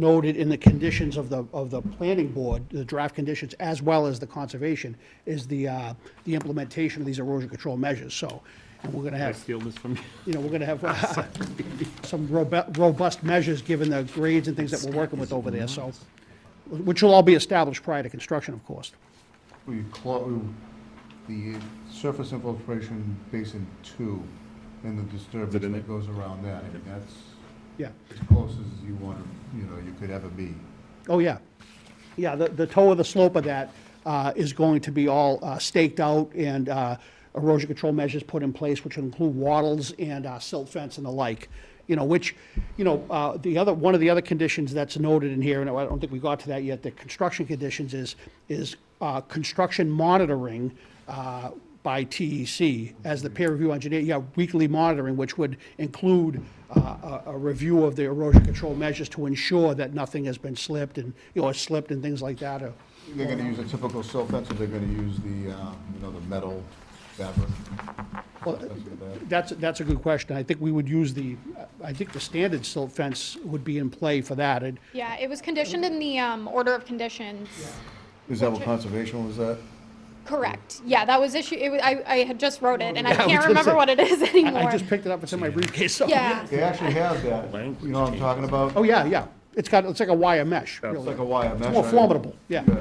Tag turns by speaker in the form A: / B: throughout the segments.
A: noted in the conditions of the, of the planning board, the draft conditions, as well as the conservation, is the, uh, the implementation of these erosion control measures, so, and we're gonna
B: I
A: have,
B: steal this from you.
A: you know, we're gonna have uh, some robu- robust measures, given the grades and things that we're working with over there, so, which will all be established prior to construction, of course.
C: We close the surface infiltration basin two and the disturbance
B: in
C: that
B: it?
C: goes around that. I mean, That's
A: Yeah.
C: as close as you want, to, you know, you could ever be.
A: Oh, yeah. Yeah, the, the toe of the slope of that uh, is going to be all uh, staked out and uh, erosion control measures put in place, which include wattles and uh, silt fence and the like. You know, which, you know, uh, the other, one of the other conditions that's noted in here, and I don't think we got to that yet, the construction conditions is, is uh, construction monitoring uh, by TEC as the peer review engineer, yeah, weekly monitoring, which would include uh, a a review of the erosion control measures to ensure that nothing has been slipped and, you know, or slipped and things like that, Uh, or,
C: They're gonna use a typical silt fence, or they're gonna use the, uh, you know, the metal fabric.
A: Well, uh,
C: That's what that-
A: That's, that's a good question. I think we would use the, uh, I think the standard silt fence would be in play for that. And
D: Yeah, it was conditioned in the um, order of conditions.
C: Is that what conservation was that?
D: Correct. Yeah, that was issue. It was, I, I had just wrote it, and
A: Yeah, I
D: I
A: was
D: can't
A: gonna
D: remember
A: say-
D: what it is
A: I-
D: anymore.
A: I just picked it up, it's in my briefcase, so.
D: yeah.
C: They actually have that. You know what I'm talking about?
A: Oh, yeah, yeah. It's got, it's like a wire mesh,
C: It's
A: really.
C: like a wire mesh.
A: It's more
C: right?
A: formidable, yeah,
C: Yeah.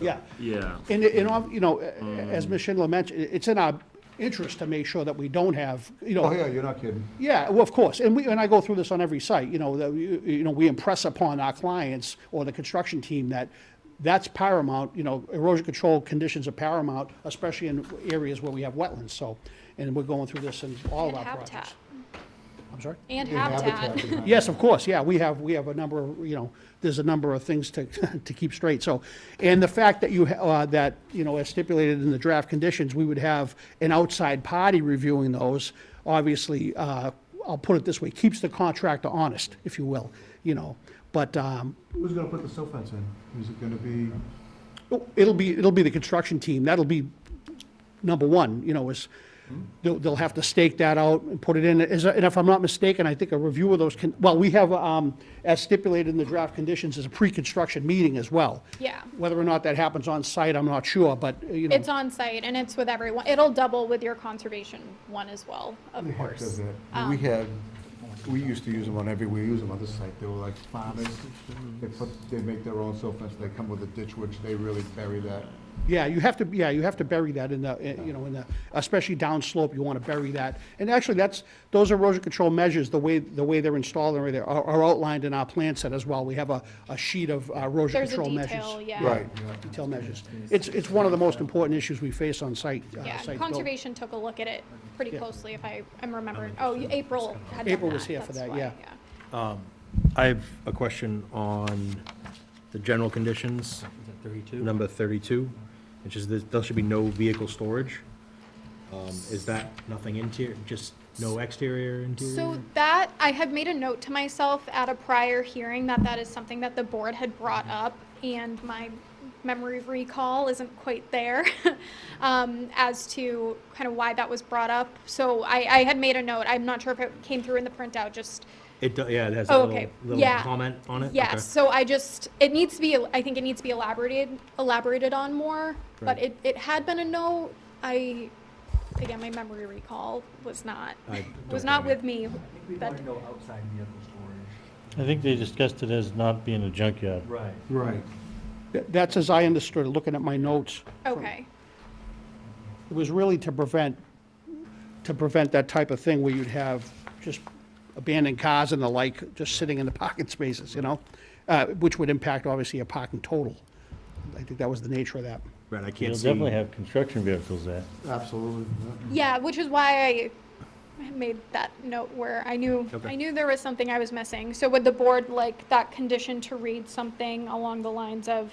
A: yeah.
B: Yeah.
A: And, it- and, all- you know, a-
C: Mm.
A: as Ms. Schindler mentioned, it- it's in our interest to make sure that we don't have, you know.
C: Oh, yeah, you're not kidding.
A: Yeah, well, of course, and we, and I go through this on every site, you know, that, you you know, we impress upon our clients or the construction team that that's paramount, you know, erosion control conditions are paramount, especially in areas where we have wetlands, so, and we're going through this in all of
D: And
A: our
D: habitat.
A: projects. I'm sorry?
D: And
C: In
D: habitat.
C: behind
A: Yes, of course, yeah, we have, we have a number, of you know, there's a number of things to, to keep straight, so. And the fact that you, ha- uh, that, you know, as stipulated in the draft conditions, we would have an outside party reviewing those, obviously, uh, I'll put it this way, keeps the contractor honest, if you will, you know, but, um,
C: Who's gonna put the silt fence in? Is it gonna be,
A: it'll be, it'll be the construction team, that'll be number one, you know, is, they'll, they'll have to stake that out and put it in, Is- and if I'm not mistaken, I think a review of those, can well, we have, um, as stipulated in the draft conditions, is a pre-construction meeting as well.
D: Yeah.
A: Whether or not that happens on site, I'm not sure, but, uh, you know.
D: It's on site, and it's with everyone. It'll double with your conservation one as well, of
C: the heck does
D: course.
C: that? We had, we used to use them on every, we use them on this site. They were like farmers. They put, they make their own silt fence. They come with a ditch, which they really bury that.
A: Yeah, you have to, yeah, you have to bury that in the, in- you know, in the, especially downslope, you want to bury that. And actually, that's, those erosion control measures, the way, the way they're installed and they're, are are outlined in our plan set as well. We have a, a sheet of uh, erosion
D: There's a
A: control measures.
D: detail, yeah.
C: Right.
A: Detail measures. It's, it's one of the most important issues we face on site. uh,
D: Yeah,
A: site build.
D: conservation took a look at it pretty
A: Yeah.
D: closely, if I am remembering. Oh, you- April had done that.
A: April was here for
D: that's
A: that,
D: why,
A: yeah.
E: I have a question on the general conditions. Number 32, which is that there should be no vehicle storage. Um, Is that nothing interior, just no exterior, interior?
D: So that, I had made a note to myself at a prior hearing that that is something that the board had brought
E: Mm-hmm.
D: up, and my memory recall isn't quite there um, as to kind of why that was brought up. So I, I had made a note. I'm not sure if it came through in the printout, just,
E: It, do- yeah, it has a
D: Oh,
E: little,
D: okay.
E: little
D: Yeah.
E: comment on it? Okay.
D: yes. So I just, it needs to be, I think it needs to be elaborated, elaborated on more, but
E: Right.
D: it, it had been a no. I, again, my memory recall was not,
E: I
D: was
E: don't
D: not
E: have it.
D: with me.
F: We
D: that-
F: want to go outside vehicle storage.
G: I think they discussed it as not being a junkyard.
F: Right.
C: Right.
A: Th- That's as I understood, it, looking at my notes.
D: Okay.
A: It was really to prevent, to prevent that type of thing where you'd have just abandoned cars and the like, just sitting in the parking spaces, you know? Uh, Which would impact, obviously, a parking total. I think that was the nature of that.
E: Right, I can't
G: You'll
E: see.
G: definitely have construction vehicles there.
C: Absolutely.
D: Yeah, which is why I made that note where I knew,
E: Okay.
D: I knew there was something I was missing. So would the board like that condition to read something along the lines of,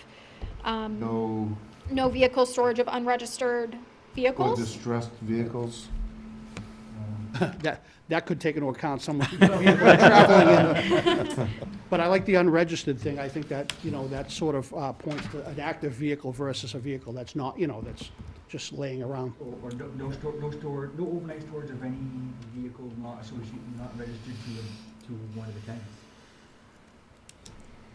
D: um,
C: No,
D: no vehicle storage of unregistered
C: or
D: vehicles?
C: distressed vehicles.
A: That, that could take into account someone who's traveling in. But I like the unregistered thing. I think that, you know, that sort of uh, points to an active vehicle versus a vehicle that's not, you know, that's just laying around.
F: Or, or no, no store, no store, no overnight storage of any vehicle not associated, not registered to, to one of the tenants.